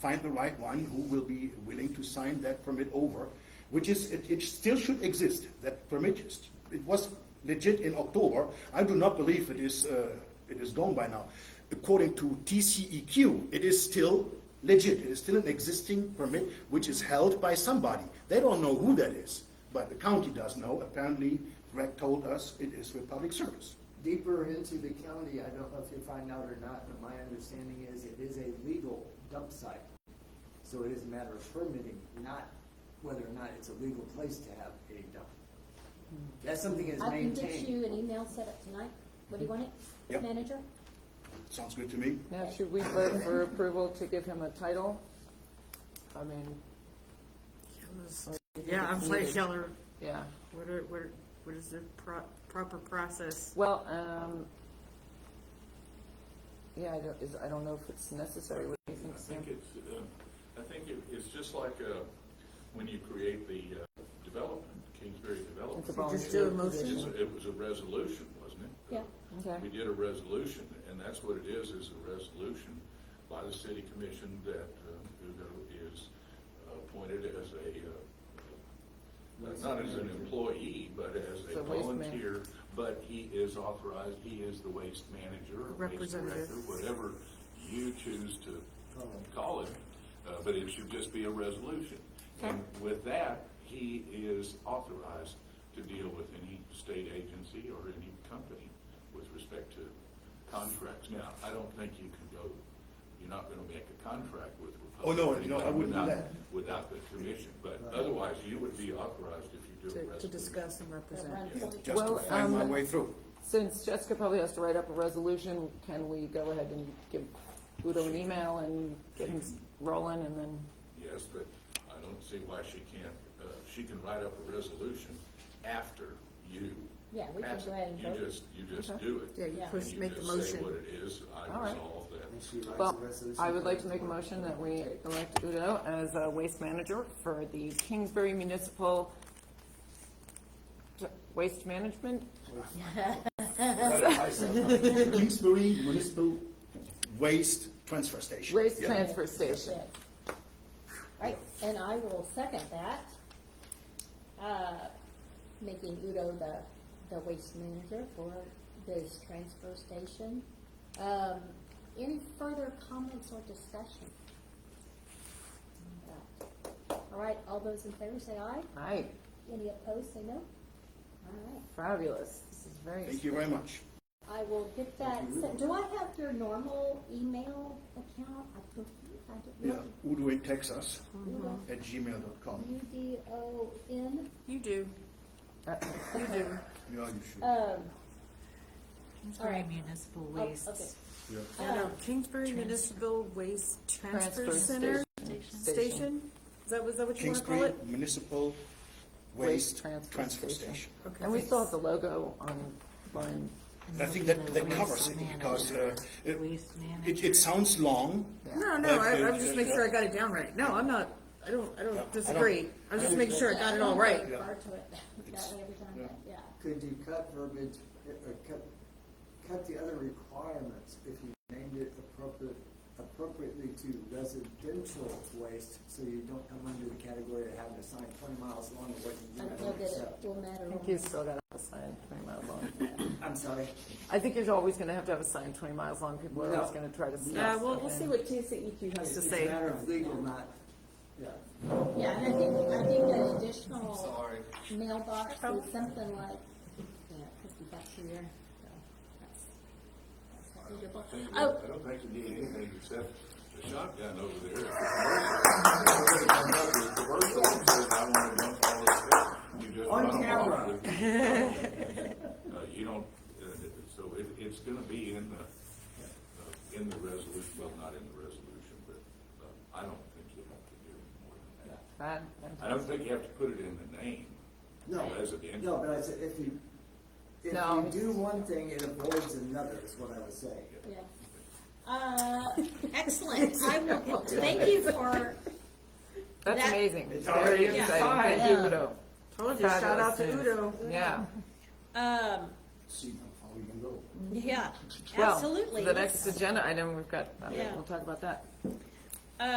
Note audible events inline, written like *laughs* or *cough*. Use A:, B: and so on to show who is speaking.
A: find the right one who will be willing to sign that permit over, which is, it, it still should exist, that permit, is- it was legit in October. I do not believe it is, uh, it is gone by now. According to TCEQ, it is still legit, it is still an existing permit which is held by somebody. They don't know who that is, but the county does know, apparently Greg told us it is with public service.
B: Deeper into the county, I don't know if you find out or not, but my understanding is it is a legal dump site. So it is a matter of permitting, not whether or not it's a legal place to have a dump. That's something that's
C: I can get
B: maintained.
C: you an email set up tonight. What do you want
A: Yep.
C: it? Manager?
A: Sounds good to me.
D: Now, should we vote for approval to give him a title? I mean,
E: Yeah, I'm like Keller,
D: yeah,
E: what are, what, are- what is the pro- proper process?
D: well, um, yeah, I don't, is, I don't know if it's necessary, what do you think,
F: I
D: Sam?
F: think it's, uh, I think it, it's just like, uh, when you create the, uh, development, Kingsbury Development.
D: It's a
E: Just
D: volunteer
E: do a motion.
D: position.
F: It's- It was a resolution, wasn't it?
C: Yeah.
D: Okay.
F: We did a resolution, and that's what it is, is a resolution by the city commission that, uh, Ugo is appointed as a, uh, not as an employee, but as
D: As
F: a
D: a waste man.
F: volunteer, but he is authorized, he is the waste manager, or waste director,
E: Representative.
F: whatever you choose to call it, uh, but it should just be a resolution. And with that, he is authorized to deal with any state agency or any company with respect to contracts. Now, I don't think you can go, you're not gonna make a contract with
A: Oh,
F: Republic.
A: no, no, I wouldn't do
F: without-
A: that.
F: Without the commission, but otherwise you would be authorized if you do
E: To,
F: a
E: to
F: resolution.
E: discuss and represent.
A: Just
D: Well,
A: to find my
D: um,
A: way through.
D: Since Jessica probably has to write up a resolution, can we go ahead and give Udo an email and get him rolling and then,
F: Yes, but I don't see why she can't, uh, she can write up a resolution after you.
C: Yeah, we can
F: pass it.
C: go ahead and vote.
F: You just, you just do it.
E: Yeah, you
C: Yeah.
E: first make the motion.
F: And you just say what it is,
D: All
F: I
D: right.
F: resolve
B: And
F: that.
B: she writes a
D: well,
B: resolution
D: I would
B: for
D: like
B: it
D: to make a
B: work.
D: motion that we elect Udo as a waste manager for the Kingsbury Municipal Waste Management
A: Kingsbury Municipal Waste Transfer Station.
D: Waste
A: Yeah.
D: Transfer Station.
C: Right, and I will second that. Uh, Making Udo the, the waste manager for this transfer station. Um, Any further comments or discussion? All right, all those in favor say aye.
D: Right,
C: Any opposed, say no. All right.
D: fabulous. This is very.
A: Thank you very much.
C: I will get that, sent. do I have your normal email account? I don't, I don't
A: Yeah,
C: know.
A: Udo in Texas at gmail.com.
C: U D O N,
E: You do.
A: Yeah, you
D: Uh,
A: should.
C: um,
G: Kingsbury Municipal
C: oh,
G: Waste
C: okay.
E: No, no, Kingsbury Municipal Waste Transfer Center Station? Is that, was that what you wanna call
A: Kingsbury
E: it?
A: Municipal
D: Waste
A: Waste
D: Transfer
A: Transfer
D: Station.
A: Station.
E: Okay,
D: And we
E: thanks.
D: still have the logo online.
G: and
A: I think that,
G: then
A: that
G: the
A: covers
G: waste
A: it because uh,
G: manager.
A: it,
G: Waste
A: it,
G: manager.
A: it sounds long.
E: No,
A: But,
E: no, I,
A: uh,
E: I'm just making sure I got it down right. No, I'm not, I don't, I don't disagree. I'm just making sure I got it all right.
C: I refer to it *laughs* that way every time, but yeah.
B: Could you cut verbiage, uh, uh, cut, cut the other requirements if you named it appropriate, appropriately to residential waste, so you don't come under the category of having a sign twenty miles long of what you
C: I don't
B: do
C: know
B: not
C: that it
B: accept?
C: will matter.
D: I think you still got a sign twenty miles long.
B: I'm sorry,
D: I think you're always gonna have to have a sign twenty miles long. People are always
B: No.
D: gonna try to.
E: Yeah, Uh, we'll, we'll see what TCEQ has
B: it's
E: to
B: it's a
E: say.
B: matter of legal, not, yeah.
C: Yeah, and I think, I think an additional mailbox is something like, yeah, fifty bucks a year, so that's, that's
F: I
C: negligible.
F: think-
C: Oh,
F: I don't think you need anything except the shotgun over there. Everybody comes up with commercial and says, "I wanna dump all this stuff." You just
B: On
F: run them
B: camera.
F: off with- Uh, You don't, uh, so it, it's gonna be in the, uh, in the resolution, well, not in the resolution, but uh, I don't think you have to do more than that.
D: Right?
F: I don't think you have to put it in the name.
B: No, no,
F: Residential.
B: but I said, if you, if
D: No.
B: you do one thing, it avoids another, is what I was saying.
C: Yeah. Uh, excellent. I will, *laughs* thank you for,
D: That's
C: That-
D: amazing.
B: It's
D: Very
B: already
D: exciting. Thank you, Udo.
E: Told you, shout out to
D: Fabulous news.
E: Udo.
D: Yeah.
C: um,
A: See how far we can go.
C: yeah,
D: Well,
C: absolutely.
D: The next agenda item, we've got, uh, I mean,
C: Yeah.
D: we'll talk about that.